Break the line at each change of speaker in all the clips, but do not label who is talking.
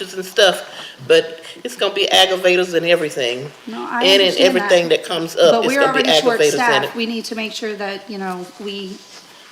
pictures and stuff, but it's gonna be aggravators and everything.
No, I
And in
understand that.
everything that comes up,
But
it's
we're
gonna be
already
aggravators and
short-staffed.
it.
We need to make sure that, you know, we,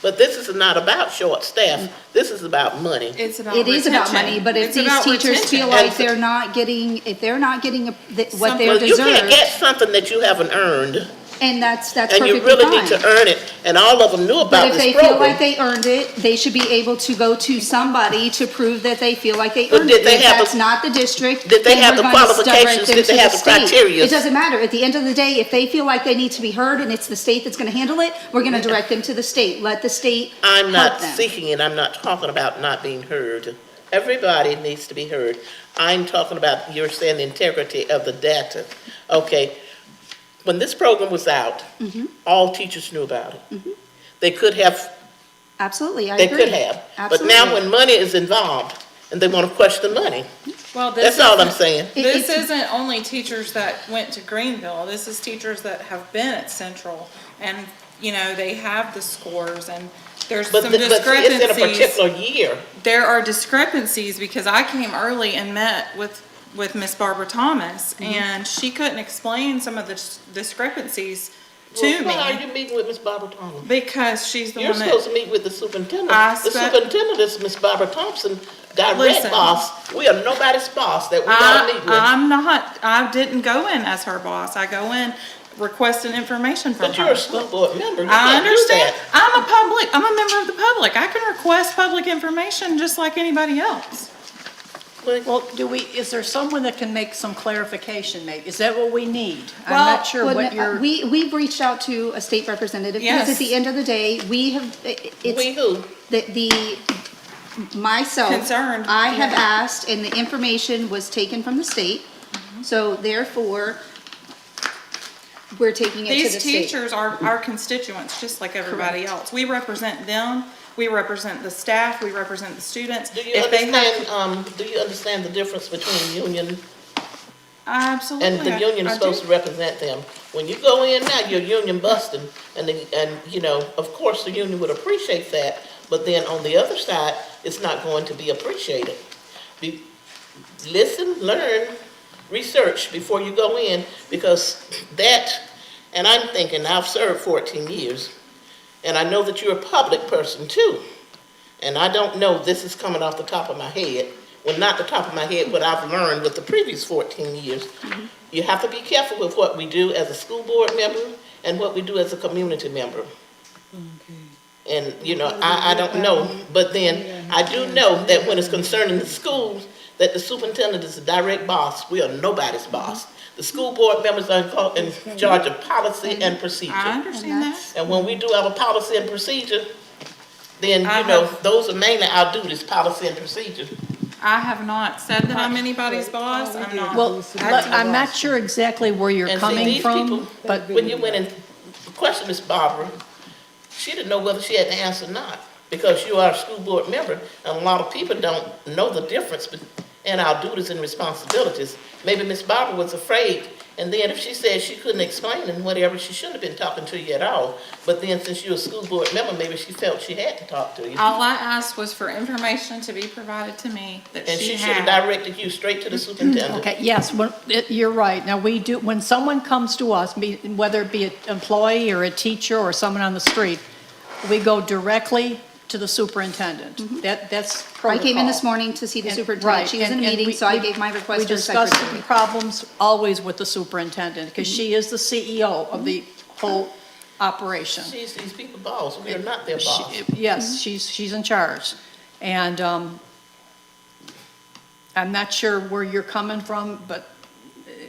But this is not about short staff. This is about money.
It's about
it is about money, but if
It's
these
about
teachers feel
retention.
like
And-
they're not getting, if they're not getting a- th- what
Some-
they're
Well, you can't
deserved,
get something that you haven't earned,
and that's, that's
and you
perfectly
really need to
fine.
earn it. And all of them knew
But
about
if they
this
feel like
program.
they earned it, they should be able to go to somebody to prove that they feel like they
But
earned
did
it.
they
If
have the-
that's not the district,
did they
then
have
we're
the
going to subject
qualifications?
them
Did
to
they
the
have the
state.
criteria?
It doesn't matter. At the end of the day, if they feel like they need to be heard and it's the state that's gonna handle it, we're gonna direct them to the state. Let the state
I'm not
help them.
seeking it. I'm not talking about not being heard. Everybody needs to be heard. I'm talking about, you're saying the integrity of the data. Okay, when this program was out, all teachers knew about it. They could have
Absolutely, I
They
agree.
could have. But now
Absolutely.
when money is involved and they want to question money,
Well, this
that's all I'm
isn't-
saying.
It-
This
it's-
isn't only teachers that went to Greenville, this is teachers that have been at Central, and, you know, they have the scores, and there's
But,
some
the- but see, it's in a
discrepancies.
particular year.
There are discrepancies, because I came early and met with, with Miss Barbara Thomas,
Mm-hmm.
and she couldn't explain some of the dis- discrepancies to
Well, Why are
me,
you meeting with Ms. Barbara Thomas?
because she's the
You're
one
supposed
that,
to meet with the superintendent.
I
The
spe-
superintendent is Ms. Barbara Thompson, direct
Listen.
boss. We are nobody's boss that we gotta
I,
meet with.
I'm not, I didn't go in as her boss, I go in requesting information from her.
But you're a school board member, you
I
can't do
understand.
that.
I'm a public, I'm a member of the public. I can request public information just like anybody else.
Well, do we, is there someone that can make some clarification maybe? Is that what we need? I'm
Well,
not sure
Well,
what
no, uh,
your,
We, we've reached out to a state representative, because at
Yes.
the end of the day, we have, i- i-
We
it's,
who?
the, the, myself.
Concerned.
I have asked, and the information was taken from the state,
Mm-hmm.
so therefore, we're taking it to the
These
state.
teachers are our constituents, just like everybody else. We represent them, we represent the staff, we represent the students.
Do you
If they have-
understand, um, do you understand the difference between union
I Absolutely.
And the
I-
union
I
is
do.
supposed to represent them. When you go in now, you're union busting, and, the- and, you know, of course, the union would appreciate that, but then on the other side, it's not going to be appreciated. Be- Listen, learn, research before you go in, because that, and I'm thinking, I've served fourteen years, and I know that you're a public person too. And I don't know, this is coming off the top of my head, well, not the top of my head, what I've learned with the previous fourteen years. You have to be careful with what we do as a school board member and what we do as a community member. And, you know, I, I don't know, but then I do know that when it's concerning the schools, that the superintendent is the direct boss, we are nobody's boss. The school board members are in co- in charge of policy and procedure.
I understand that.
And when we do our policy and procedure, then,
I
you know,
have-
those are mainly our duties, policy and procedure.
I have not said that I'm anybody's boss. I'm not.
well, but I'm not sure exactly where you're
And see,
coming
these
from,
people,
but
when you went and questioned Miss Barbara, she didn't know whether she had to answer or not, because you are a school board member, and a lot of people don't know the difference be- in our duties and responsibilities. Maybe Miss Barbara was afraid, and then if she said she couldn't explain and whatever, she shouldn't have been talking to you at all. But then, since you're a school board member, maybe she felt she had to talk to you.
All I asked was for information to be provided to me that
And
she
she should have
had.
directed you straight to the superintendent.
Mm-hmm. Okay, yes, when- it- you're right. Now, we do, when someone comes to us, be- whether it be an employee or a teacher or someone on the street, we go directly to the superintendent. That, that's
Mm-hmm. I came in this
protocol.
morning to see the
And-
superintendent,
right,
she was in
and-
a
and
meeting,
we-
so I
we-
gave my request to
We
the
discuss
secretary.
the problems always with the superintendent, because she is the CEO of the whole operation.
She's these people boss, we are not their boss.
She-
Mm-hmm.
Yes, she's, she's in charge. And um, I'm not sure where you're coming from, but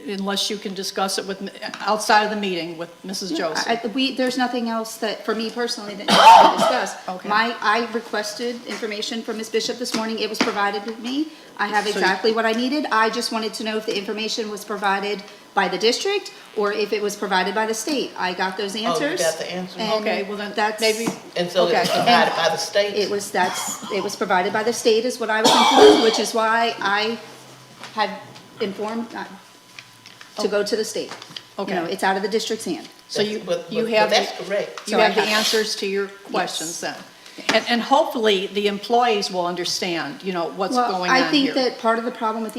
unless you can discuss it with, outside of the meeting with Mrs. Joseph.
I, we, there's nothing else that, for me personally, that needs to be discussed.
Okay.
My, I requested information from Ms. Bishop this morning, it was provided to me, I have exactly what I needed, I just wanted to know if the information was provided by the district, or if it was provided by the state, I got those
Oh, got
answers.
the answers.
and
Okay, well then,
that's-
maybe,
And so it was
Okay.
provided by the state.
It was, that's, it was provided by the state is what I was informed, which is why I had informed uh,
Oh.
to go to the state. You know,
Okay.
it's out of the district's hand.
so you,
But-
you
but-
have,
But that's
the-
correct.
you
So I
have the
have-
answers to your questions then? And, and hopefully, the employees will understand, you know, what's
Well,
going on
I
here.
think that part of the problem with the